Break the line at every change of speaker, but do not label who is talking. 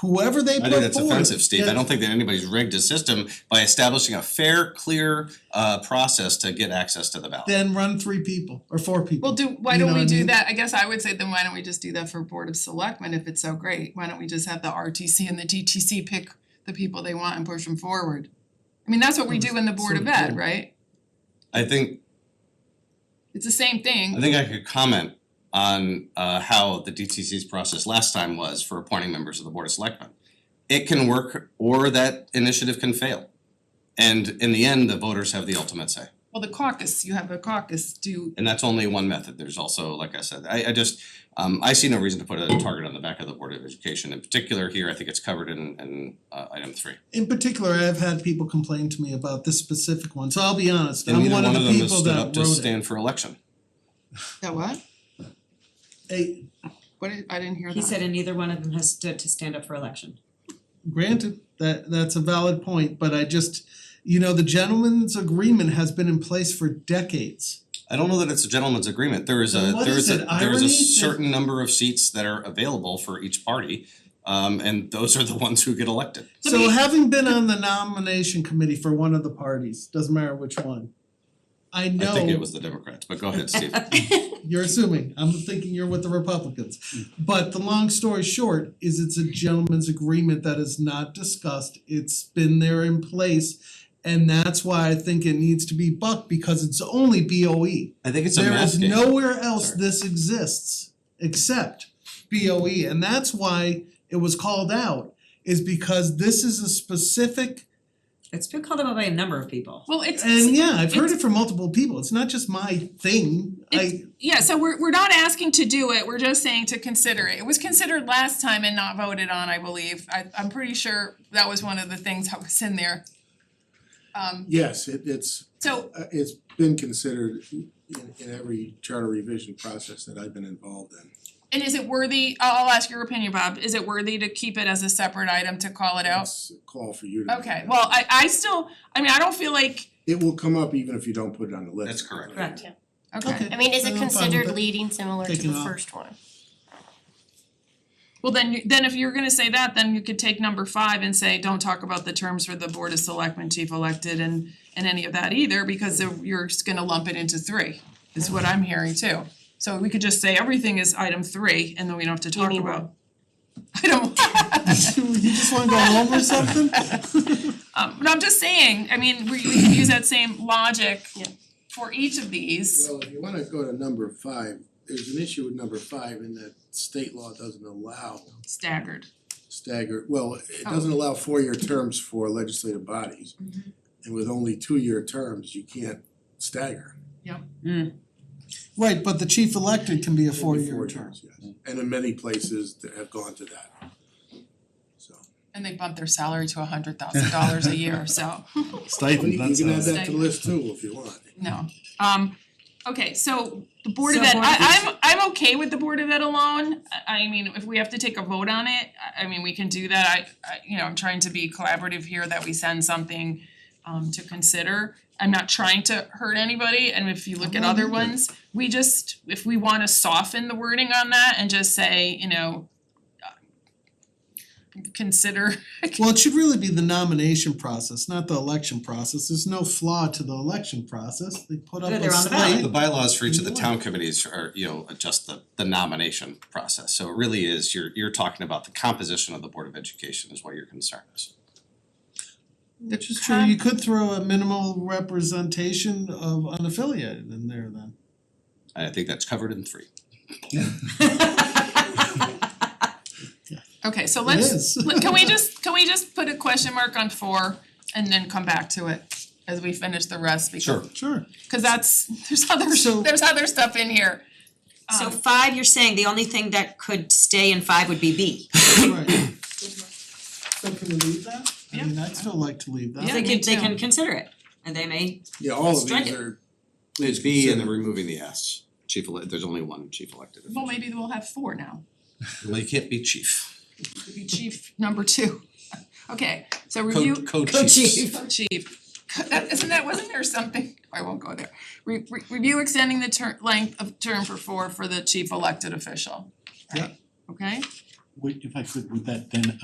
whoever they put
I
forward.
think that's offensive, Steve. I
that-
don't think that anybody's rigged a system by establishing a fair, clear uh process to get access to the ballot.
Then run three people or four people.
Well, do, why
You know
don't
what I
we do
mean?
that, I guess I would say then why don't we just do that for Board of Selectmen if it's so great, why don't we just have the RTC and the DTC pick the people they want and push them forward? I mean, that's what we do in the Board of
Sort of,
Ed,
yeah.
right?
I think
It's the same
I
thing,
think I could comment on uh how the DTC's process last time was for appointing members of the Board of Selectmen. It can work or that initiative can fail. And in the end, the voters have the ultimate say.
well, the caucus, you have a caucus, do,
And that's only one method. There's also, like I said, I I just um I see no reason to put a target on the back of the Board of Education. In particular here, I think it's covered in in uh item three.
In particular, I've had people complain to me about this specific one, so I'll be honest,
And
I'm
neither
one of the
them has
people
stood
that wrote
up
it.
to stand for election.
that what?
Hey,
What, did- I didn't hear that.
He said, and neither one of them has stood to stand up for election.
granted, that that's a valid point, but I just, you know, the gentleman's agreement has been in place for decades.
I don't know that it's a gentleman's agreement. There is
Then
a
what
there
is
is a
it?
there is
Irony?
a certain number of seats that are available for each party. Um and those are the ones who get elected.
Let
So
me-
having been on the nomination committee for one of the parties, doesn't matter which one. I
I think it
know,
was the Democrats, but go ahead, Steve.
you're assuming, I'm thinking you're with the Republicans. But the long story short is it's a gentleman's agreement that is not discussed, it's been there in place. And that's why I think it needs to be bucked because it's only BOE.
I think it's a
There
math
is
game.
nowhere else
Sorry.
this exists except BOE, and that's why it was called out, is because this is a specific,
It's been called out by a number of people.
Well, it's,
and yeah, I've heard it from multiple people, it's not just my thing, I,
It's- yeah, so we're we're not asking to do it, we're just saying to consider it. It was considered last time and not voted on, I believe. I I'm pretty sure that was one of the things that was in there. Um
Yes, it it's
so
uh it's been considered in in every charter revision process that I've been involved in.
and is it worthy, I'll I'll ask your opinion, Bob, is it worthy to keep it as a separate item to call it out?
It's a call for you to.
Okay, well, I I still, I mean, I don't feel like,
It will come up even if you don't put it on the list.
That's correct.
Correct.
okay,
Okay.
I mean, is
I'm fine
it
with
considered
it.
leading similar to
Taking
the
it off.
first one?
well, then you- then if you're gonna say that, then you could take number five and say, don't talk about the terms for the Board of Selectmen, Chief Elected and and any of that either, because of- you're just gonna lump it into three, is what I'm hearing too. So we could just say everything is item three, and then we don't have to talk
mean
about. I don't,
you just wanna go home or something?
um, no, I'm just saying, I mean, we we can use that same logic
Yeah.
for each of these.
Well, if you wanna go to number five, there's an issue with number five in that state law doesn't allow
staggered.
staggered, well, it
Oh.
doesn't allow four-year terms for legislative bodies.
Mm-hmm.
And with only two-year terms, you can't stagger.
Right, but the chief elected can be a
It'd be
four-year term.
years, yes. And in many places that have gone to that. So.
And they bump their salary to a hundred thousand dollars a year, so,
Stipend,
You
that's
can add
us.
that to the list too if you want.
no. Um, okay, so the Board of
So
Ed,
Board of
I I'm I'm okay with the Board of Ed alone. I I mean, if we have to take a vote on it, I I mean, we can do that. I I, you know, I'm trying to be collaborative here that we send something um to consider. I'm not trying to hurt anybody, and if you look at other ones,
Mm-hmm.
we just, if we wanna soften the wording on that and just say, you know, uh, consider
Well, it should really be the nomination process, not the election process, there's no flaw to the election process, they put up
Yeah,
a
they're on the ballot.
slate.
The bylaws for each of the town committees are, you know, adjust the the nomination process. So it really is, you're you're talking about the composition of the Board of Education is what your concern is.
Which is true, you could throw a minimal representation of unaffiliated in there then.
And I think that's covered in three.
Okay, so
It
let's,
is.
let- can we just, can we just put a question mark on four and then come back to it as we finish the rest? because-
Sure.
Sure.
Cause that's, there's other,
So-
there's other stuff in here.
So
Um,
five, you're saying the only thing that could stay in five would be B.
Right. So can we leave that? I
Yeah.
mean, I'd still like to leave that.
Yeah,
They
me
could, they
too.
can consider it, and they may,
Yeah, all of
Strike
these
it.
are,
It's B and then removing the S. Chief elect, there's only one chief elected.
Well, maybe we'll have four now,
Well, you can't be chief.
Could be chief number two. Okay, so review.
Co- co-chiefs.
Oh, chief, that isn't that, wasn't there something, I won't go there. Re- re- review extending the ter- length of term for four for the chief elected official.
Yeah.
Okay?
Wait, if I could, would that then